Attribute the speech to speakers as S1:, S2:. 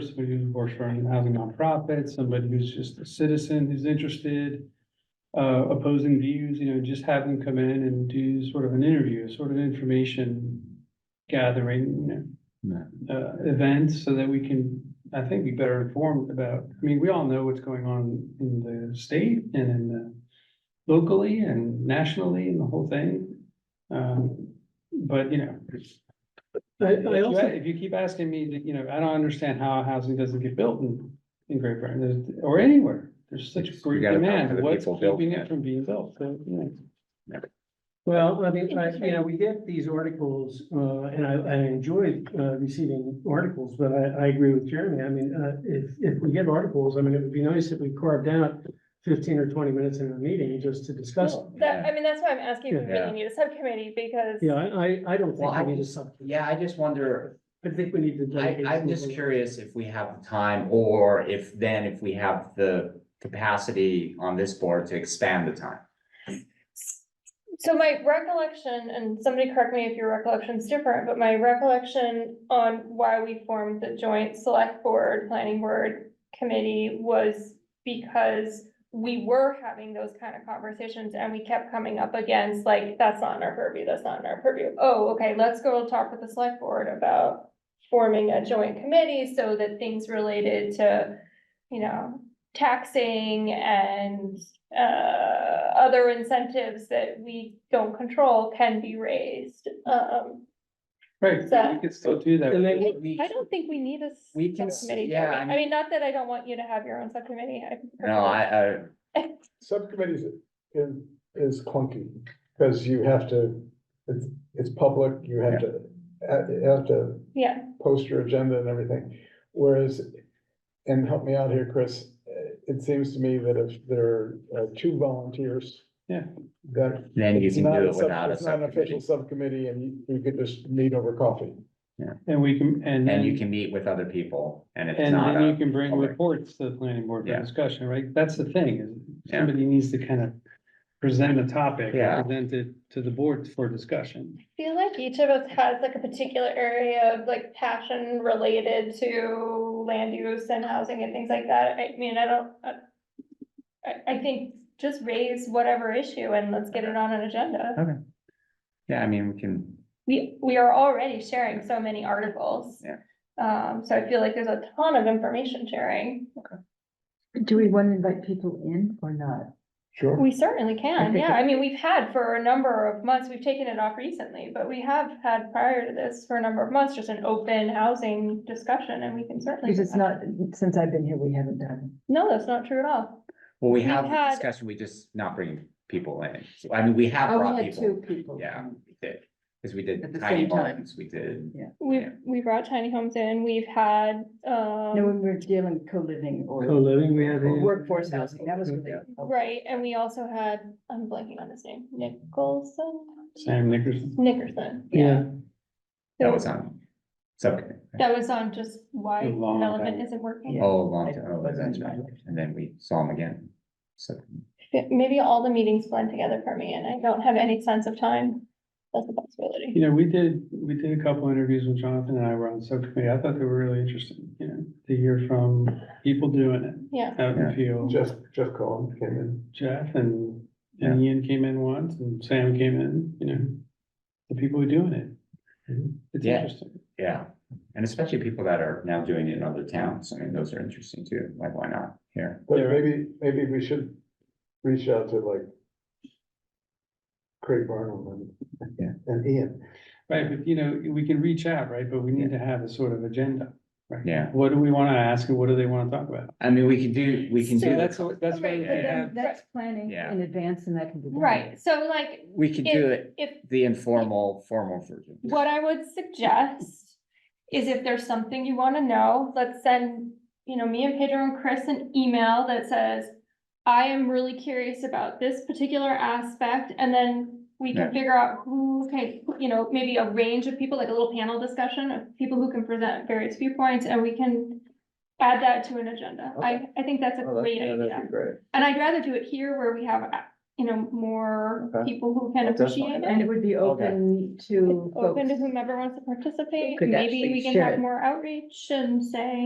S1: somebody who works for a housing nonprofit, somebody who's just a citizen who's interested, uh, opposing views, you know, just have them come in and do sort of an interview, sort of information gathering, you know, uh, events so that we can, I think, be better informed about, I mean, we all know what's going on in the state and in the locally and nationally and the whole thing. Um, but, you know,
S2: I,
S1: if
S2: I
S1: you-
S2: also,
S1: If you keep asking me, to- you know, I don't understand how housing doesn't get built in, in Great Britain, there's- or anywhere. There's
S3: You
S1: such great
S3: gotta talk to
S1: demand,
S3: the
S1: what's
S3: people built
S1: keeping
S3: it.
S1: it from being built, so, you know.
S2: well, I mean, I, you know, we get these articles, uh, and I, I enjoy, uh, receiving articles, but I, I agree with Jeremy. I mean, uh, if, if we get articles, I mean, it would be nice if we carved out fifteen or twenty minutes in a meeting just to discuss. it.
S4: Well, That, I mean, that's why I'm asking if we
S3: Yeah.
S4: really need a subcommittee, because
S2: Yeah, I, I, I don't
S5: Well, I
S2: think we need
S5: mean-
S2: to sub,
S5: Yeah, I just wonder,
S2: I think we need to.
S5: I,
S2: dedicate
S5: I'm just
S2: some-
S5: curious if we have the time or if then if we have the capacity on this board to expand the time.
S4: So my recollection, and somebody correct me if your recollection's different, but my recollection on why we formed the joint select board, planning board committee was because we were having those kind of conversations and we kept coming up against like, that's not in our purview, that's not in our purview. Oh, okay, let's go talk with the select board about forming a joint committee so that things related to, you know, taxing and uh, other incentives that we don't control can be raised. Um,
S1: Right, so we
S4: So-
S1: could still do that.
S2: And then-
S4: I,
S5: We-
S4: I don't think we need a
S5: We can s-
S4: subcommittee.
S5: yeah,
S4: Jeremy.
S5: I mean-
S4: I mean, not that I don't want you to have your own subcommittee.
S5: No, I, I,
S6: Subcommittees is, is clunky, because you have to, it's, it's public, you have to, uh, you have to
S4: Yeah,
S6: post your agenda and everything. Whereas, and help me out here, Chris, uh, it seems to me that if there are uh, two volunteers.
S1: Yeah.
S6: That.
S5: then you
S6: it's
S5: can
S6: not
S5: do
S6: a
S5: it
S6: sub-
S5: without a
S6: It's not an official
S5: subcommittee.
S6: subcommittee, and you, you could just meet over coffee.
S1: And we can, and
S5: And you
S1: then,
S5: can meet with other people and it's
S1: and
S5: not
S1: then you
S5: a,
S1: can bring
S5: okay.
S1: reports to the planning board for
S5: Yeah.
S1: discussion, right? That's the thing, is
S5: Yeah.
S1: somebody needs to kind of present a topic,
S5: Yeah.
S1: present it to the board for discussion.
S4: I feel like each of us has like a particular area of like passion related to land use and housing and things like that. I mean, I don't, I, I- I think just raise whatever issue and let's get it on an agenda.
S5: yeah, I mean, we can,
S4: We, we are already sharing so many articles.
S5: Yeah.
S4: Um, so I feel like there's a ton of information sharing.
S7: Do we want to invite people in or not?
S6: Sure.
S4: We certainly can,
S7: Okay,
S4: yeah.
S7: good.
S4: I mean, we've had for a number of months, we've taken it off recently, but we have had prior to this for a number of months, just an open housing discussion and we can certainly.
S7: Because
S4: do
S7: it's
S4: that.
S7: not, since I've been here, we haven't done.
S4: No, that's not true at all.
S5: well, we
S4: We've
S5: have the
S4: had-
S5: discussion, we just not bring people in. So, I mean, we have
S7: Oh,
S5: brought
S7: we had
S5: people.
S7: two people.
S5: Yeah,
S7: um,
S5: we did, because we
S7: At
S5: did
S7: the
S5: tiny
S7: same time.
S5: homes, we did.
S4: We've,
S5: Yeah.
S4: we brought tiny homes in, we've had,
S7: No, when
S4: um,
S7: we were dealing co-living or
S2: Co-living, we had. a-
S7: workforce housing, that was really. helpful.
S4: right, and we also had, I'm blanking on his name, Nicholson,
S1: Sam Nickerson,
S4: Nickerson.
S2: Yeah,
S5: That was on subcommittee. right?
S4: That was on just why
S1: A long
S4: element
S1: time.
S4: isn't working.
S7: Yeah.
S5: Oh, a long
S7: I-
S5: time,
S7: I
S5: oh, that's
S7: wasn't
S5: right,
S7: invited.
S5: and then we saw him again, so.
S4: F- Maybe all the meetings blend together for me and I don't have any sense of time. That's a possibility.
S1: you know, we did, we did a couple interviews when Jonathan and I were on subcommittee. I thought they were really interesting, you know, to hear from people doing it.
S4: Yeah.
S1: Out in the
S5: Yeah.
S1: field.
S6: Jeff, Jeff Cohen came in.
S1: Jeff and, and Ian came in once and Sam came in, you know, the people who are doing it.
S6: Mm-hmm.
S1: It's
S5: Yeah.
S1: interesting.
S5: Yeah, and especially people that are now doing it in other towns, I mean, those are interesting too, like, why not here?
S6: But
S1: Yeah.
S6: maybe, maybe we should reach out to like Craig Barnum
S5: Yeah.
S6: and, and Ian.
S1: Right, but you know, we can reach out, right? But we need to have a sort of agenda. right?
S5: Yeah.
S1: What do we want to ask and what do they want to talk about?
S5: I mean, we can do, we can
S7: So
S1: So
S5: do,
S1: that's,
S5: it-
S1: that's why we can
S4: Right, but then-
S1: have,
S7: But That's planning
S5: Yeah.
S7: in advance and that can be. done.
S4: Right, so like,
S5: we can do
S4: if,
S5: it,
S4: if,
S5: the informal, formal version.
S4: what I would suggest is if there's something you want to know, let's send, you know, me and Pedro and Chris an email that says, I am really curious about this particular aspect, and then we can
S5: Yeah.
S4: figure out who, okay, you know, maybe a range of people, like a little panel discussion of people who can present various viewpoints, and we can add that to an agenda. I, I think
S6: Oh,
S4: that's a great idea.
S6: great.
S4: And I'd rather do it here where we have, uh, you know, more
S6: Okay.
S4: people who can
S6: Well, that's fine.
S4: appreciate
S7: And it
S4: it.
S7: would be open to
S4: Open to
S7: folks.
S4: whomever wants to participate,
S7: Could
S4: maybe
S7: actually
S4: we can
S7: share
S4: have
S7: it.
S4: more outreach and say,